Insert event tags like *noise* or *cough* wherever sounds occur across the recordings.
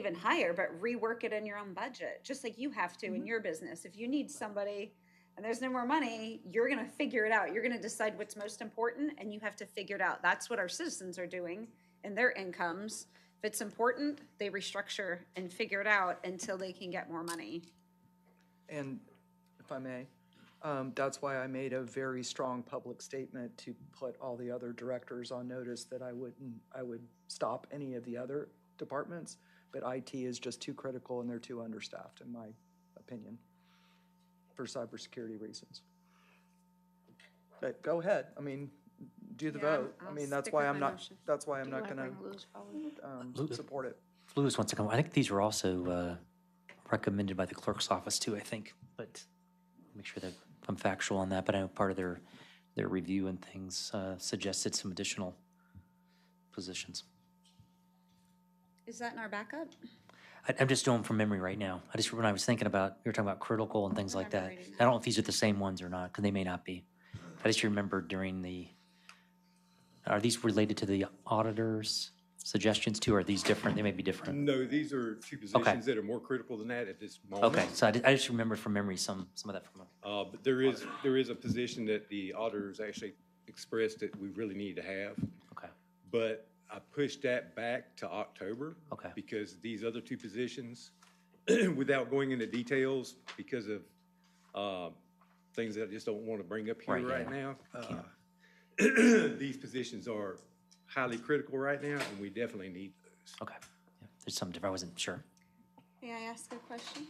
even hire, but rework it in your own budget, just like you have to in your business. If you need somebody and there's no more money, you're going to figure it out. You're going to decide what's most important and you have to figure it out. That's what our citizens are doing in their incomes. If it's important, they restructure and figure it out until they can get more money. And if I may, um, that's why I made a very strong public statement to put all the other directors on notice that I wouldn't, I would stop any of the other departments, but IT is just too critical and they're too understaffed, in my opinion, for cybersecurity reasons. But go ahead, I mean, do the Yeah, I'm- vote. I I'll mean, that's stick why with I'm my not, motion. that's why I'm Do you not wanna gonna, bring Lou's forward? um, Lou- support it. Lewis wants to come. I think these are also uh, recommended by the clerk's office too, I think, but make sure that I'm factual on that. But I know part of their, their review and things uh, suggested some additional positions. Is that in our backup? I- I'm just doing from memory right now. I just, when I was thinking about, you were talking about critical and things like remember that. reading I don't know if these are the same ones or not, because they may not be. I just remember during the, are these related to the auditor's suggestions too, or are these different? They may be different. No, these are two positions that are more critical than that at this moment. Okay, so I di- I just remembered from memory some, some of that from, Uh, but there is, there is a position that the auditors actually expressed that we really need to have, okay, but I pushed that back to October. Okay. Because these other two positions, *clears throat* without going into details, because of, um, things that I just don't want to bring up here Right, yeah, right now. uh, *clears throat* These positions are highly critical right now, and we definitely need those. okay. Yeah, There's some different, I wasn't sure. May I ask a question?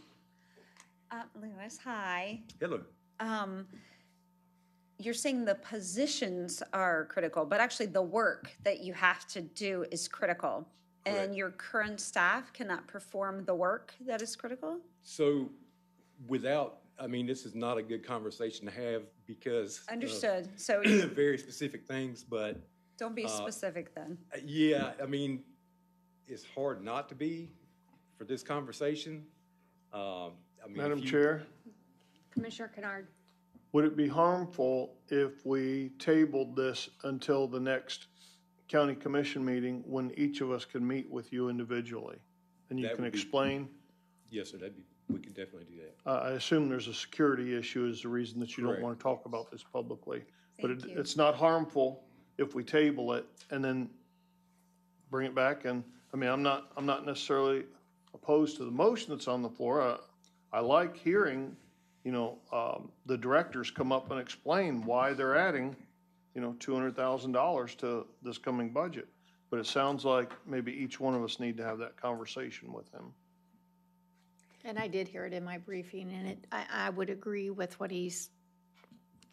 Uh, Lewis, hi. Hello. Um, you're saying the positions are critical, but actually the work that you have to do is critical. And Correct. your current staff cannot perform the work that is critical? So without, I mean, this is not a good conversation to have because. of Understood. *clears throat* So *laughs* Very specific things, but don't be specific then. uh, yeah, I mean, it's hard not to be for this conversation. Um, I mean, if Madam you- Chair, Commissioner Kennard, would it be harmful if we tabled this until the next county commission meeting when each of us can meet with you individually? And you That can would be- explain, Yes, sir, that'd be, we could definitely do that. I, Uh, I assume there's a security issue is the reason that you don't Correct. want to talk about this publicly. But Thank it, you. it's not harmful if we table it and then bring it back and, I mean, I'm not, I'm not necessarily opposed to the motion that's on the floor. I, I like hearing, you know, um, the directors come up and explain why they're adding, you know, two hundred thousand dollars to this coming budget. But it sounds like maybe each one of us need to have that conversation with him. and I did hear it in my briefing, and it, I, I would agree with what he's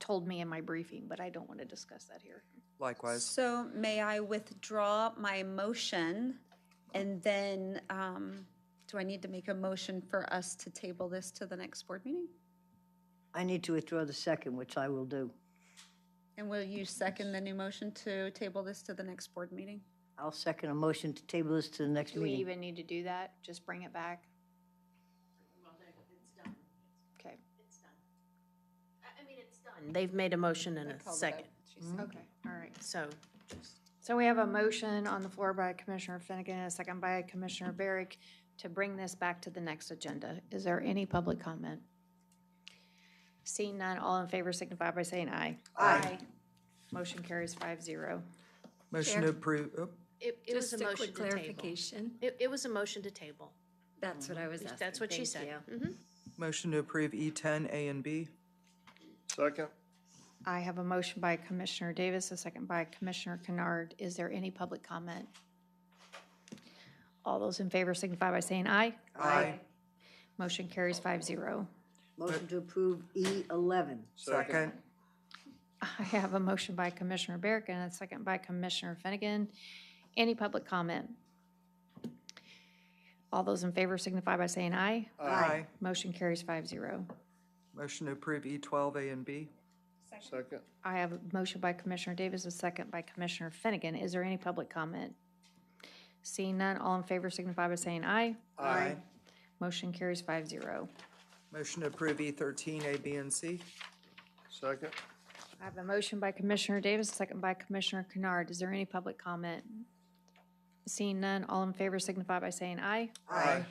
told me in my briefing, but I don't want to discuss that here. Likewise, So may I withdraw my motion? And then, um, do I need to make a motion for us to table this to the next board meeting? I need to withdraw the second, which I will do. And will you second the new motion to table this to the next board meeting? I'll second a motion to table this to the next Do we meeting. even need to do that? Just bring it back? Okay, They've made a motion and a second, okay, all right. so So we have a motion on the floor by Commissioner Finnegan, and a second by Commissioner Barrick to bring this back to the next agenda. Is there any public comment? Seeing none, all in favor signify by saying aye. Aye. Motion carries five zero. motion to approve, oh, it, it was a motion to table. clarification. It, it was a motion to table. That's what I was asking. That's what she Thank said. you. motion to approve E ten A and B. Second? I have a motion by Commissioner Davis, a second by Commissioner Kennard. Is there any public comment? All those in favor signify by saying aye. Aye. Motion carries five zero. Motion to approve E E11. Second. I have a motion by Commissioner Barrick and a second by Commissioner Finnegan. Any public comment? All those in favor signify by saying aye. Aye. Motion carries five zero. Motion to approve E twelve A and B. Second? I have a motion by Commissioner Davis, a second by Commissioner Finnegan. Is there any public comment? Seeing none, all in favor signify by saying aye. Aye. Motion carries five zero. Motion to approve E thirteen A, B, and C. Second? I have a motion by Commissioner Davis, a second by Commissioner Kennard. Is there any public comment? Seeing none, all in favor signify by saying aye. Aye.